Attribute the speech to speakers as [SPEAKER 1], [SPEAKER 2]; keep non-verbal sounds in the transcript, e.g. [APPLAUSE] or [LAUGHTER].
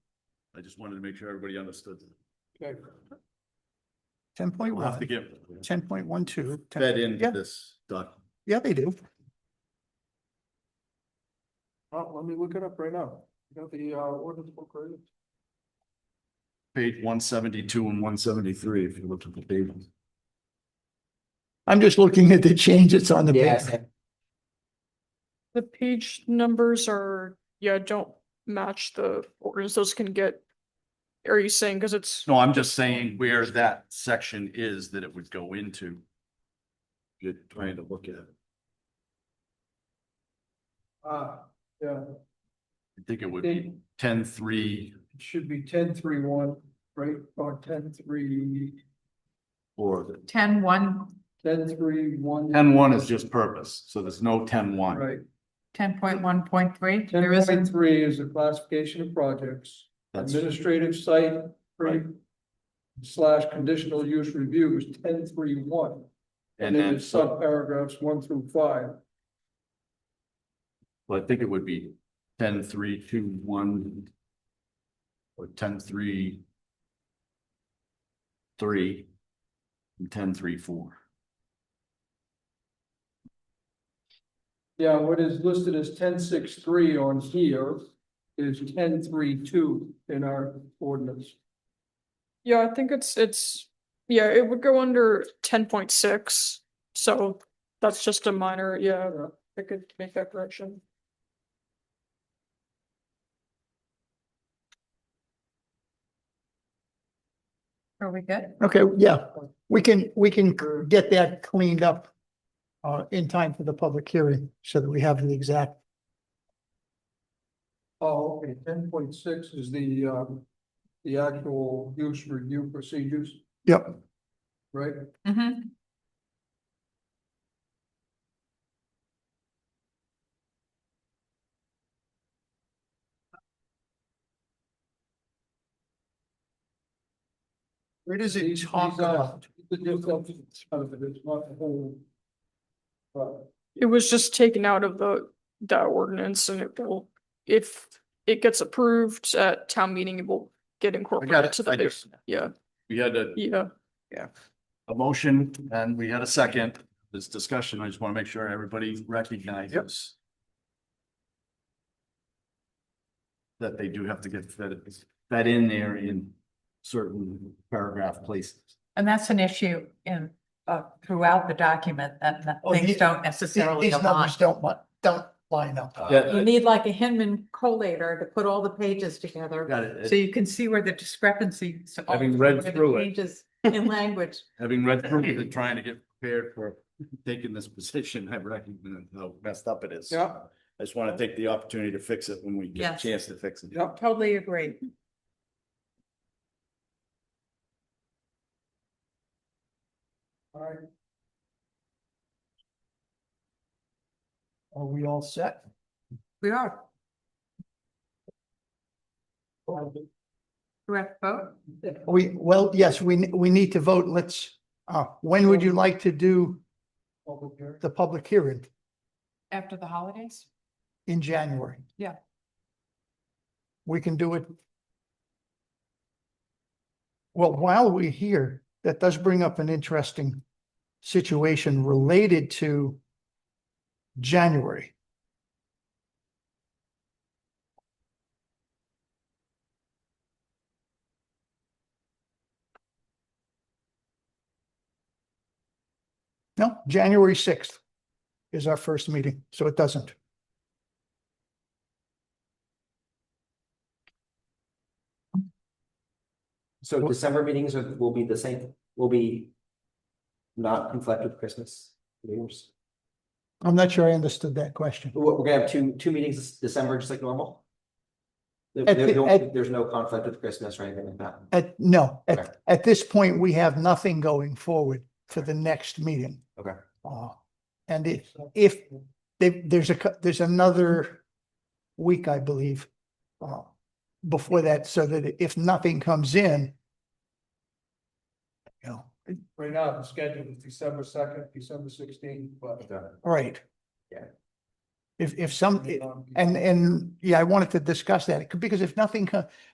[SPEAKER 1] I just wanted to make sure everybody understood.
[SPEAKER 2] ten point
[SPEAKER 1] We'll have to
[SPEAKER 2] one,
[SPEAKER 1] get
[SPEAKER 2] ten point one two.
[SPEAKER 3] fed into
[SPEAKER 2] Yeah,
[SPEAKER 3] this document.
[SPEAKER 2] yeah, they do.
[SPEAKER 4] Well, let me look it up right now. You got the uh ordinance book right?
[SPEAKER 1] page one seventy-two and one seventy-three if you look at the table.
[SPEAKER 2] I'm just looking at the changes on the page.
[SPEAKER 5] The page numbers are, yeah, don't match the orders. Those can get. Are you saying, because it's,
[SPEAKER 1] No, I'm just saying where that section is that it would go into.
[SPEAKER 3] You're trying to look at it.
[SPEAKER 4] Ah, yeah,
[SPEAKER 1] I think it would be
[SPEAKER 4] it
[SPEAKER 1] ten-three
[SPEAKER 4] should be ten three one, right, or ten three,
[SPEAKER 3] Or the,
[SPEAKER 6] ten one,
[SPEAKER 4] ten three one.
[SPEAKER 1] Ten one is just purpose, so there's no ten one.
[SPEAKER 4] Right,
[SPEAKER 6] ten point one point three,
[SPEAKER 4] ten
[SPEAKER 6] there
[SPEAKER 4] point
[SPEAKER 6] isn't,
[SPEAKER 4] three is the classification of projects,
[SPEAKER 1] That's,
[SPEAKER 4] administrative site.
[SPEAKER 1] Right.
[SPEAKER 4] Slash conditional use review is ten three one, and
[SPEAKER 1] and
[SPEAKER 4] then
[SPEAKER 1] then,
[SPEAKER 4] it's sub paragraphs one through five.
[SPEAKER 1] so I think it would be ten-three, two, one. Or ten-three. Three. And ten-three, four.
[SPEAKER 4] Yeah, what is listed as ten six three on here is ten three two in our ordinance.
[SPEAKER 5] yeah, I think it's, it's, yeah, it would go under ten point six. So that's just a minor, yeah, I could make that correction.
[SPEAKER 6] are we good?
[SPEAKER 2] Okay, yeah, we can, we can get that cleaned up uh, in time for the public hearing so that we have the exact,
[SPEAKER 4] Oh, okay, ten point six is the um, the actual use review procedures,
[SPEAKER 2] yep.
[SPEAKER 4] right?
[SPEAKER 6] Mm-hmm.
[SPEAKER 2] Where does
[SPEAKER 4] These- these are- The difference of it is not the whole. But
[SPEAKER 5] It was just taken out of the, that ordinance and it will, if it gets approved at town meeting, it will get incorporated to the
[SPEAKER 1] I do.
[SPEAKER 5] big, yeah,
[SPEAKER 1] We had a,
[SPEAKER 5] yeah.
[SPEAKER 1] a motion and we had a second. This discussion, I just want to make sure everybody recognizes. That they do have to get fed, fed in there in certain paragraph places.
[SPEAKER 6] And that's an issue in, uh, throughout the document, that, that
[SPEAKER 2] Oh,
[SPEAKER 6] things
[SPEAKER 2] the-
[SPEAKER 6] don't necessarily
[SPEAKER 2] These
[SPEAKER 6] align.
[SPEAKER 2] numbers don't, li- don't line up.
[SPEAKER 6] You need like a Hinman collator to put all the pages together,
[SPEAKER 1] Got it.
[SPEAKER 6] so you can see where the discrepancies. are,
[SPEAKER 1] Having read
[SPEAKER 6] where the
[SPEAKER 1] through it.
[SPEAKER 2] [LAUGHS]
[SPEAKER 6] Changes in language.
[SPEAKER 1] Having read through it and trying to get prepared for taking this position, I recognize how messed up it is.
[SPEAKER 4] Yeah.
[SPEAKER 1] I just want to take the opportunity to fix it when we get a
[SPEAKER 6] Yes.
[SPEAKER 1] chance to fix it.
[SPEAKER 4] Yep.
[SPEAKER 6] Totally agree.
[SPEAKER 4] all right,
[SPEAKER 2] Are we all set?
[SPEAKER 6] We are. Do we have to vote?
[SPEAKER 2] We, well, yes, we, ne- we need to vote. Let's, uh, when would you like to do
[SPEAKER 4] public hearing.
[SPEAKER 2] the public hearing?
[SPEAKER 6] After the holidays?
[SPEAKER 2] In January?
[SPEAKER 6] Yeah.
[SPEAKER 2] We can do it. Well, while we're here, that does bring up an interesting situation related to January. No, January sixth is our first meeting, so it doesn't.
[SPEAKER 7] So December meetings are, will be the same, will be not conflict with Christmas. New Year's.
[SPEAKER 2] I'm not sure I understood that question.
[SPEAKER 7] We're, we're gonna have two, two meetings this December, just like normal. There-
[SPEAKER 2] At the-
[SPEAKER 7] there
[SPEAKER 2] at-
[SPEAKER 7] don't- there's no conflict with Christmas or anything like that.
[SPEAKER 2] At, no,
[SPEAKER 7] Okay.
[SPEAKER 2] at, at this point, we have nothing going forward for the next meeting.
[SPEAKER 7] Okay.
[SPEAKER 2] Uh, and if, if they, there's a, cou- there's another week, I believe, uh, before that, so that if nothing comes in, you know,
[SPEAKER 4] Right now, the schedule is December second, December sixteenth, but.
[SPEAKER 2] right.
[SPEAKER 7] Yeah.
[SPEAKER 2] Um, If, if some, and, and, yeah, I wanted to discuss that, because if nothing, co-